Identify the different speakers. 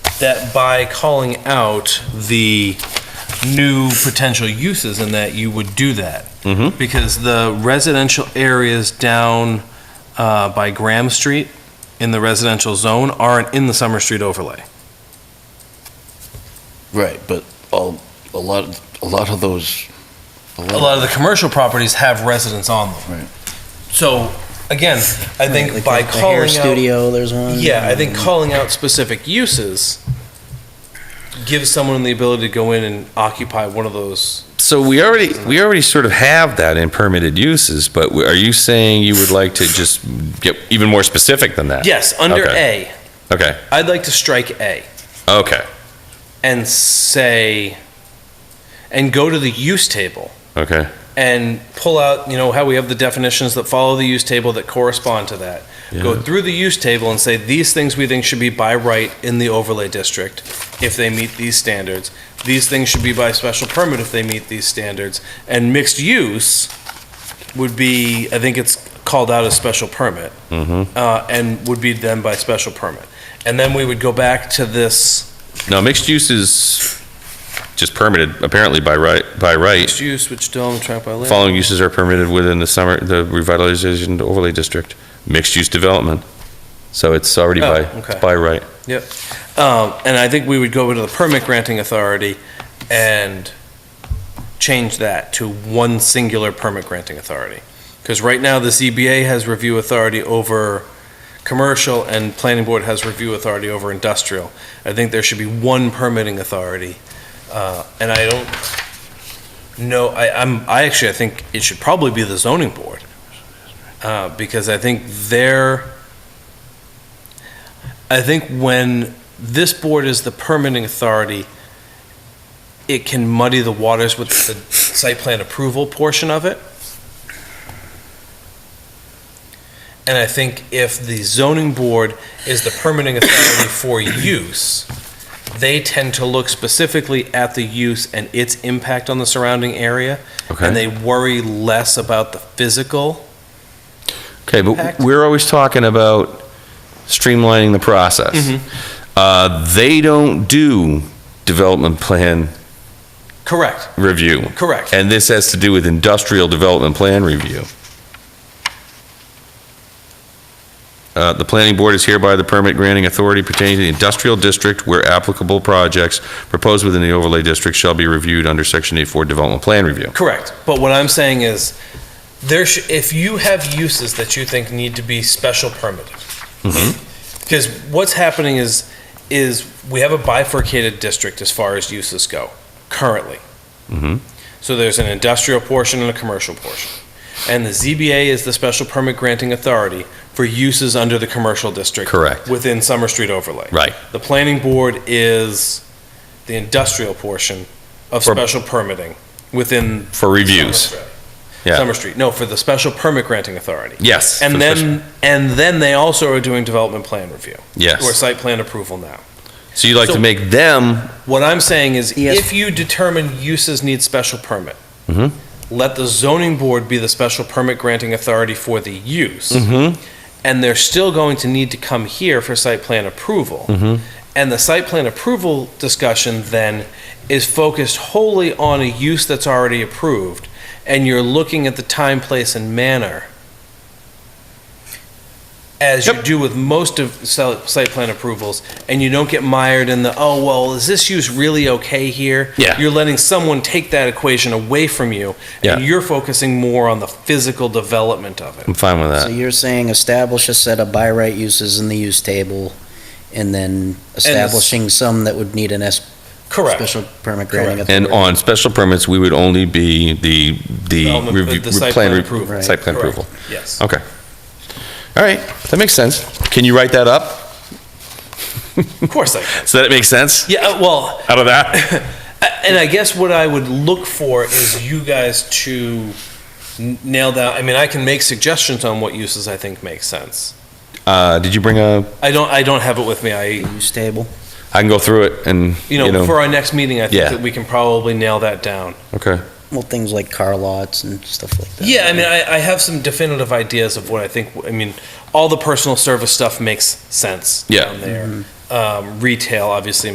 Speaker 1: that by calling out the new potential uses in that, you would do that.
Speaker 2: Mhm.
Speaker 1: Because the residential areas down uh, by Graham Street in the residential zone aren't in the Summer Street overlay.
Speaker 2: Right, but all, a lot, a lot of those.
Speaker 1: A lot of the commercial properties have residents on them.
Speaker 2: Right.
Speaker 1: So, again, I think
Speaker 3: Like
Speaker 1: by
Speaker 3: the hair
Speaker 1: calling out
Speaker 3: studio, there's one.
Speaker 1: Yeah, I think calling out specific uses gives someone the ability to go in and occupy one of those.
Speaker 4: So we already, we already sort of have that in permitted uses, but are you saying you would like to just get even more specific than that?
Speaker 1: Yes, under
Speaker 4: Okay.
Speaker 1: A,
Speaker 4: Okay,
Speaker 1: I'd like to strike A
Speaker 4: okay,
Speaker 1: and say, and go to the use table
Speaker 4: okay.
Speaker 1: and pull out, you know, how we have the definitions that follow the use table that correspond to that. Go
Speaker 4: Yeah.
Speaker 1: through the use table and say, these things we think should be by right in the overlay district if they meet these standards. These things should be by special permit if they meet these standards. And mixed use would be, I think it's called out as special permit,
Speaker 4: Mhm.
Speaker 1: uh, and would be then by special permit. And then we would go back to this,
Speaker 4: No, mixed use is just permitted apparently by right, by right.
Speaker 1: mixed use, which still I'm trapped by land.
Speaker 4: Following uses are permitted within the summer, the revitalization overlay district, mixed use development. So it's already
Speaker 1: Oh,
Speaker 4: by,
Speaker 1: okay.
Speaker 4: it's by right.
Speaker 1: Um, and I think we would go to the permit granting authority and change that to one singular permit granting authority. Because right now, the ZBA has review authority over commercial and planning board has review authority over industrial. I think there should be one permitting authority. Uh, and I don't know, I, I'm, I actually, I think it should probably be the zoning board. Uh, because I think they're, I think when this board is the permitting authority, it can muddy the waters with the site plan approval portion of it. And I think if the zoning board is the permitting authority for use, they tend to look specifically at the use and its impact on the surrounding area, and
Speaker 4: Okay.
Speaker 1: they worry less about the physical.
Speaker 4: Okay, but
Speaker 1: impact.
Speaker 4: we're always talking about streamlining the process.
Speaker 1: Mm-hmm.
Speaker 4: Uh, they don't do development plan
Speaker 1: Correct,
Speaker 4: review.
Speaker 1: correct.
Speaker 4: And this has to do with industrial development plan review. Uh, The planning board is hereby the permit granting authority pertaining to the industrial district where applicable projects proposed within the overlay district shall be reviewed under section 84 development plan review.
Speaker 1: Correct. But what I'm saying is, there sh if you have uses that you think need to be special permitted,
Speaker 4: Mhm.
Speaker 1: because what's happening is, is we have a bifurcated district as far as uses go currently. Mm-hmm.
Speaker 4: Mhm.
Speaker 1: So there's an industrial portion and a commercial portion. And the ZBA is the special permit granting authority for uses under the commercial district.
Speaker 4: Correct.
Speaker 1: Within Summer Street overlay.
Speaker 4: Right.
Speaker 1: The planning board is the industrial portion of
Speaker 4: For-
Speaker 1: special permitting within
Speaker 4: For reviews.
Speaker 1: Summer Street.
Speaker 4: Yeah.
Speaker 1: Summer Street, no, for the special permit granting authority.
Speaker 4: Yes. for
Speaker 1: And
Speaker 4: the special-
Speaker 1: then, and then they also are doing development plan review, or
Speaker 4: Yes.
Speaker 1: site plan approval now.
Speaker 4: So you'd like
Speaker 1: so-
Speaker 4: to make them,
Speaker 1: What I'm saying is,
Speaker 3: Yes.
Speaker 1: if you determine uses need special permit,
Speaker 4: Mhm.
Speaker 1: let the zoning board be the special permit granting authority for the use,
Speaker 4: Mhm.
Speaker 1: and they're still going to need to come here for site plan approval.
Speaker 4: Mhm.
Speaker 1: And the site plan approval discussion then is focused wholly on a use that's already approved, and you're looking at the time, place, and manner. As you
Speaker 4: Yep.
Speaker 1: do with most of sel- site plan approvals, and you don't get mired in the, oh, well, is this use really okay here?
Speaker 4: Yeah.
Speaker 1: You're letting someone take that equation away from you,
Speaker 4: Yeah.
Speaker 1: and you're focusing more on the physical development of it.
Speaker 4: I'm fine with
Speaker 3: So
Speaker 4: that.
Speaker 3: you're saying establish a set of by right uses in the use table, and then establishing some that would need an S,
Speaker 1: Correct.
Speaker 3: special permit granting
Speaker 1: Correct.
Speaker 3: authority.
Speaker 4: And on special permits, we would only be the, the
Speaker 1: Development-
Speaker 4: review,
Speaker 1: the site
Speaker 4: plan,
Speaker 1: plan
Speaker 4: re-
Speaker 1: approval.
Speaker 4: site plan
Speaker 1: Correct.
Speaker 4: approval.
Speaker 1: Yes.
Speaker 4: Okay. All right, that makes sense. Can you write that up
Speaker 1: Of course I can.
Speaker 4: so that it makes sense
Speaker 1: Yeah, uh, well,
Speaker 4: out of that?
Speaker 1: And I guess what I would look for is you guys to n- nail down, I mean, I can make suggestions on what uses I think make sense.
Speaker 4: Uh, did you bring a?
Speaker 1: I don't, I don't have it with me, I,
Speaker 3: Use table.
Speaker 4: I can go through it and
Speaker 1: you know, for our next meeting, I
Speaker 4: Yeah.
Speaker 1: think that we can probably nail that down.
Speaker 4: okay.
Speaker 3: Well, things like car lots and stuff like that.
Speaker 1: Yeah, I mean, I, I have some definitive ideas of what I think, I mean, all the personal service stuff makes sense
Speaker 4: Yeah.
Speaker 3: Mm-hmm.
Speaker 1: down there. Um, retail obviously